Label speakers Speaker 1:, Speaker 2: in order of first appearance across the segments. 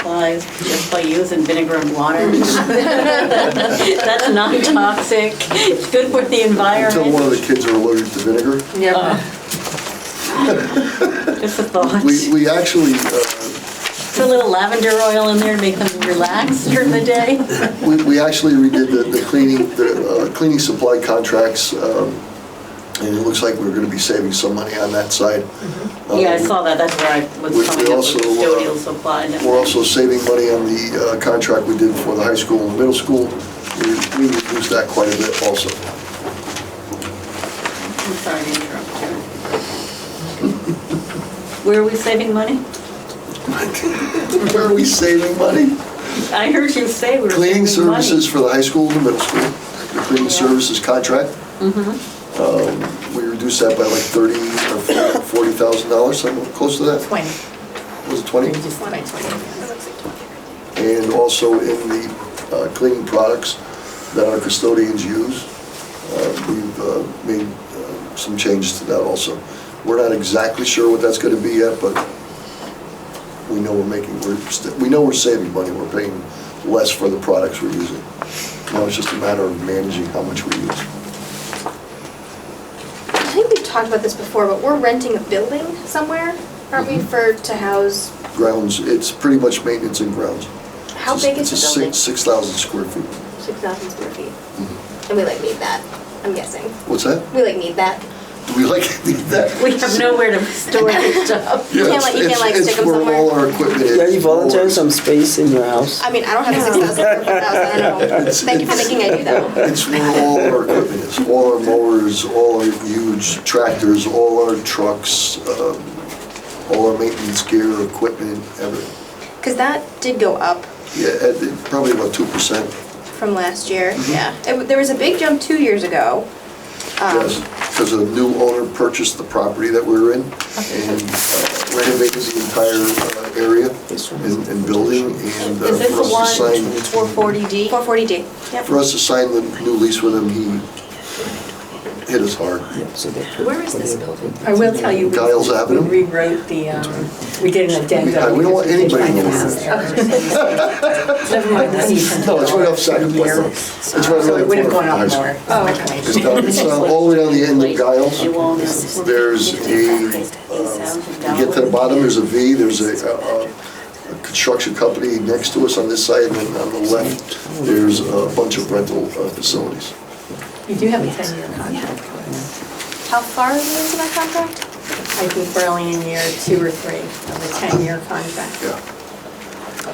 Speaker 1: realized just by using vinegar and water. That's not toxic, it's good for the
Speaker 2: Until one of
Speaker 1: environment.
Speaker 2: the kids are allergic to vinegar.
Speaker 1: Uh, Just a thought.
Speaker 2: We,
Speaker 1: Put
Speaker 2: we actually, uh,
Speaker 1: a little lavender oil in there, to make them relax during the day.
Speaker 2: we we actually redid the the cleaning, the uh, cleaning supply contracts, um, and it looks like we're going to be saving some money on that side.
Speaker 1: Mm-hmm. Yeah, I
Speaker 2: Um,
Speaker 1: saw that, that's where I
Speaker 2: We- we
Speaker 1: was coming up
Speaker 2: also,
Speaker 1: with
Speaker 2: uh,
Speaker 1: custodial supply. and
Speaker 2: We're
Speaker 1: everything.
Speaker 2: also saving money on the uh, contract we did for the high school and middle school. We- We reduced that quite a bit also.
Speaker 1: I'm sorry to interrupt you. Where are we saving money?
Speaker 2: Where are we saving money?
Speaker 1: I heard you say we were
Speaker 2: Cleaning
Speaker 1: saving money.
Speaker 2: services for the high school and the middle school, the cleaning services contract. Um, We reduced that by like 30 or 40 $40,000, something close to that.
Speaker 3: 20.
Speaker 2: Was it 20?
Speaker 3: Just 20, 20. It looks like 20.
Speaker 2: And also in the uh, cleaning products that our custodians use, uh, we've uh, made uh, some changes to that also. We're not exactly sure what that's going to be yet, but we know we're making, we're, st- we know we're saving money, we're paying less for the products we're using. Now it's just a matter of managing how much we use.
Speaker 4: I think we've talked about this before, but we're renting a building somewhere, aren't
Speaker 2: Mm-hmm.
Speaker 4: we, for, to house,
Speaker 2: Grounds, it's pretty much maintenance and grounds.
Speaker 4: how
Speaker 2: It's a-
Speaker 4: big is the building?
Speaker 2: It's a six- Mm-hmm. 6,000 square feet.
Speaker 4: 6,000 square feet. And we like need that, I'm guessing.
Speaker 2: What's that?
Speaker 4: We like need that.
Speaker 2: Do we like that?
Speaker 1: We have nowhere to store this stuff.
Speaker 4: You can't like- you can't, like, stick 'em somewhere?
Speaker 2: It's for all our equipment.
Speaker 5: Yeah, you
Speaker 2: It's for-
Speaker 5: volunteer some space in your house?
Speaker 4: I mean, I don't have a 6,000 square foot house, I don't know.
Speaker 2: It's-
Speaker 4: Thank you for
Speaker 2: it's-
Speaker 4: thinking I do though.
Speaker 2: It's where all our equipment is, all our mowers, all our huge tractors, all our trucks, um, all our maintenance gear, equipment, everything.
Speaker 4: Because that did go up
Speaker 2: Yeah, at the- probably about 2%.
Speaker 4: from last year,
Speaker 2: Mm-hmm.
Speaker 4: yeah. It w- There was a big jump two years ago. Um,
Speaker 2: Yes, because a new owner purchased the property that we were in and uh, renovated the entire uh, area and and building and uh,
Speaker 1: Is this
Speaker 2: for
Speaker 1: the one,
Speaker 2: us to sign,
Speaker 1: 440D?
Speaker 4: 440D. Yep.
Speaker 2: for us to sign the new lease with him, he hit us hard.
Speaker 5: Where is this building?
Speaker 3: I will tell you, we-
Speaker 2: Giles Avenue?
Speaker 3: we rewrote the, um, we did an addendum.
Speaker 2: We don't want
Speaker 3: because we did
Speaker 2: anybody
Speaker 3: find
Speaker 2: to
Speaker 3: the
Speaker 2: know
Speaker 3: house
Speaker 2: this.
Speaker 3: there. Never mind the season.
Speaker 2: No, it's right outside of Blair. It's right
Speaker 3: So it would have gone
Speaker 2: outside
Speaker 3: up
Speaker 2: of
Speaker 3: more.
Speaker 4: Oh,
Speaker 2: It's down, it's down, all the way down the end of Giles. There's a, uh, you get to the bottom, there's a V, there's a, a, a construction company next to us on this side, and then on the left, there's a bunch of rental uh, facilities.
Speaker 3: You do have a 10-year contract.
Speaker 4: How far are we into that contract?
Speaker 3: I think we're only in year two or three of a 10-year contract. Um,
Speaker 2: Yeah.
Speaker 3: So,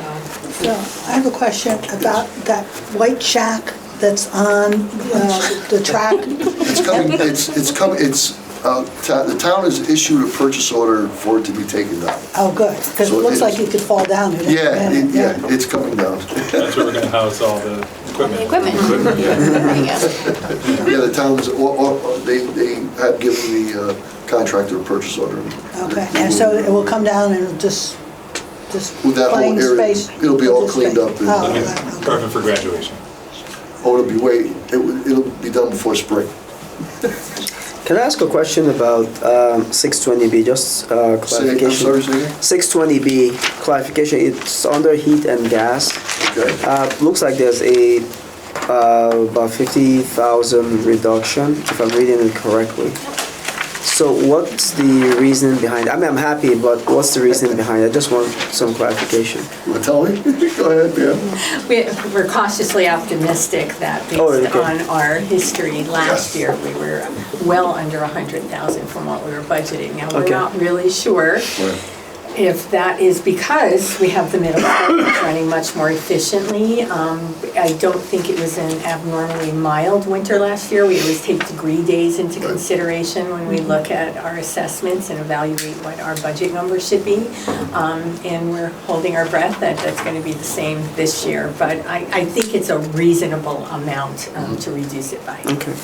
Speaker 6: So I have a question about that white shack that's on uh, the track.
Speaker 2: It's coming, it's, it's coming, it's, uh, ta- the town has issued a purchase order for it to be taken down.
Speaker 6: Oh, good, because it
Speaker 2: So
Speaker 6: looks
Speaker 2: it-
Speaker 6: like you could fall down. it.
Speaker 2: Yeah, it- yeah, it's coming down.
Speaker 7: That's where we're gonna house all the equipment.
Speaker 4: The equipment. There we go.
Speaker 2: Yeah, the town's, or- or- they, they have given the uh, contractor a purchase order.
Speaker 6: Okay, and so it will come down and just, just
Speaker 2: With that whole
Speaker 6: plain
Speaker 2: area,
Speaker 6: space.
Speaker 2: it'll be all
Speaker 6: just
Speaker 2: cleaned
Speaker 6: space.
Speaker 2: up and-
Speaker 6: Oh,
Speaker 7: It'll be
Speaker 6: okay, okay.
Speaker 7: Perfect for graduation.
Speaker 2: Oh, it'll be way, it would- it'll be done before spring.
Speaker 5: Can I ask a question about um, 620B, just uh,
Speaker 2: Say,
Speaker 5: clarification?
Speaker 2: I'm sorry, say again?
Speaker 5: 620B, clarification, it's under heat and gas.
Speaker 2: Okay.
Speaker 5: Uh, Looks like there's a, uh, about 50,000 reduction, if I'm reading it correctly. So what's the reason behind, I mean, I'm happy, but what's the reason behind it? I just want some clarification.
Speaker 2: You wanna tell me? Go ahead, yeah.
Speaker 3: we- We're cautiously optimistic that
Speaker 5: Oh, okay.
Speaker 3: based on our history
Speaker 2: Yes.
Speaker 3: last year, we were well under 100,000 from what we were budgeting. Now, we're
Speaker 5: Okay.
Speaker 3: not really sure if that is because we have the middle school that's running much more efficiently. Um, I don't think it was an abnormally mild winter last year. We always take degree days into consideration when
Speaker 1: Mm-hmm.
Speaker 3: we look at our assessments and evaluate what our budget number should be. Um, And we're holding our breath that that's going to be the same this year. But I, I think it's a reasonable amount um, to reduce it by.
Speaker 5: Okay.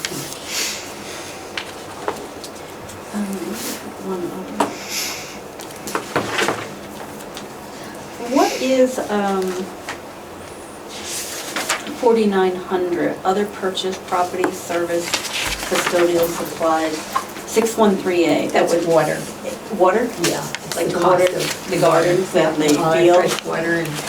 Speaker 1: What is um, 4,900, other purchase, property, service, custodial supplies, 613A? That
Speaker 3: That's
Speaker 1: was
Speaker 3: water.
Speaker 1: Water?
Speaker 3: Yeah.
Speaker 1: Like the water, the gardens that they
Speaker 3: Uh,
Speaker 1: deal?
Speaker 3: Fresh water and